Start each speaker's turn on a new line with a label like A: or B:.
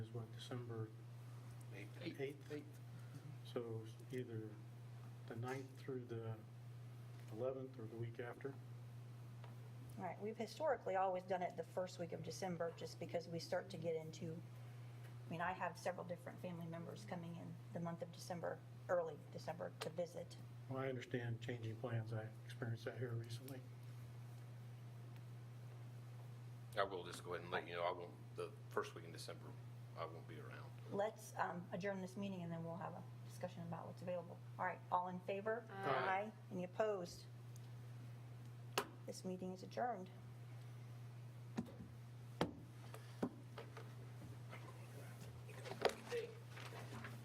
A: on December
B: Eight.
A: 8th. So either the 9th through the 11th or the week after.
C: All right, we've historically always done it the first week of December, just because we start to get into, I mean, I have several different family members coming in the month of December, early December, to visit.
A: Well, I understand changing plans. I experienced that here recently.
D: I will just go ahead and let you know, I won't, the first week in December, I won't be around.
C: Let's um, adjourn this meeting, and then we'll have a discussion about what's available. All right, all in favor?
D: Aye.
C: Any opposed? This meeting is adjourned.